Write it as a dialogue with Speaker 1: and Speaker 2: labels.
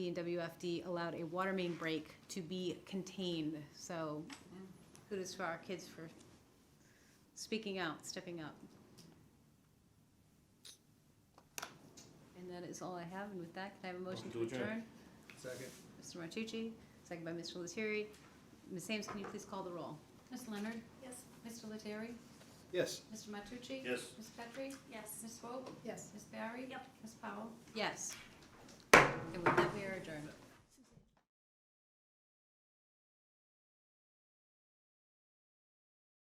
Speaker 1: and WFD allowed a water main break to be contained, so kudos for our kids for speaking out, stepping up. And that is all I have, and with that, can I have a motion to
Speaker 2: Motion to
Speaker 1: adjourn?
Speaker 2: adjourn.
Speaker 1: Mr.
Speaker 3: Second.
Speaker 1: Martucci, second by Mr. Lettieri. Ms. Ames, can you please call the roll?
Speaker 4: Ms. Leonard?
Speaker 5: Yes.
Speaker 4: Mr. Lettieri?
Speaker 3: Yes.
Speaker 4: Mr. Matucci?
Speaker 2: Yes.
Speaker 4: Ms. Petri?
Speaker 5: Yes.
Speaker 4: Ms. Swope?
Speaker 5: Yes.
Speaker 4: Ms. Barry?
Speaker 5: Yep.
Speaker 4: Ms. Powell?
Speaker 1: Yes. And with that, we